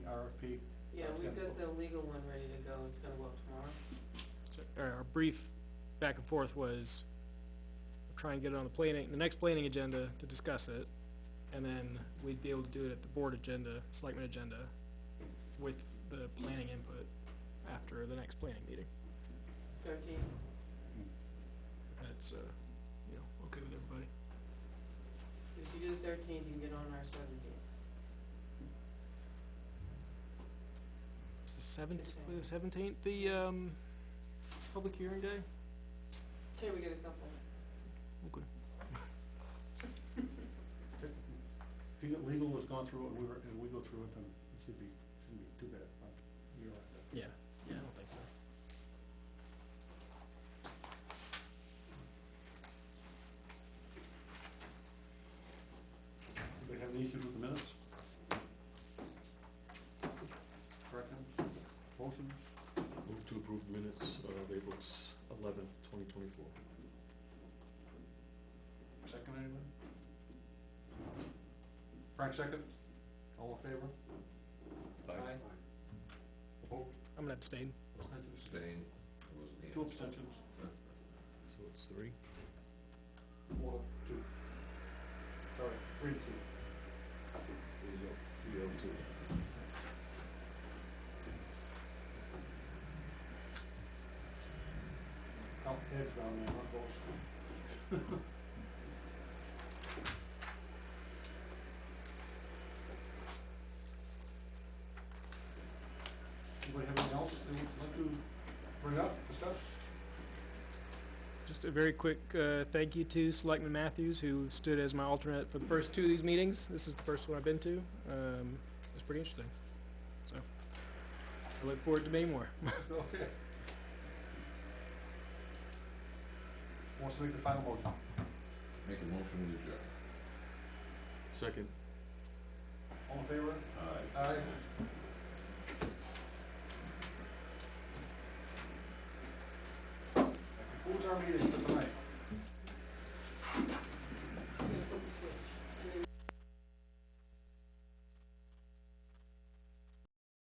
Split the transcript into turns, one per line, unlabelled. RFP.
Yeah, we've got the legal one ready to go, it's gonna go up tomorrow.
So, Our our brief back and forth was, try and get it on the planning, the next planning agenda to discuss it, and then we'd be able to do it at the board agenda, selectmen agenda, with the planning input after the next planning meeting.
Thirteen,
That's, uh, you know, okay with everybody.
if you do the thirteen, you can get on our seventeen.
It's the seventeenth, the seventeenth, the, um, public hearing day?
Can we get a couple?
Okay.
If you get legal has gone through it, we were, and we go through it, then it should be, shouldn't be too bad. but you're right.
Yeah, yeah, I don't think so.
Anybody have any issues with the minutes? Corrections, motions?
Move to approve minutes of April eleventh, twenty twenty-four.
Second, anybody? Frank, second? All in favor? Opposed?
I'm gonna abstain.
Abstentions?
Spain, wasn't here.
Two abstentions,
So it's three?
four, two. Sorry, three, to two.
Three oh- Three oh two.
Count heads down there, not votes. Anybody have anything else they would like to bring up, discuss?
Just a very quick uh, thank you to Selectman Matthews, who stood as my alternate for the first two of these meetings. This is the first one I've been to. Um, It was pretty interesting. So, I look forward to many more.
Okay. Who Wants to make the final motion?
Make a motion to adjourn.
Second.
All in favor?
Aye.
Aye. That concludes our meeting for tonight.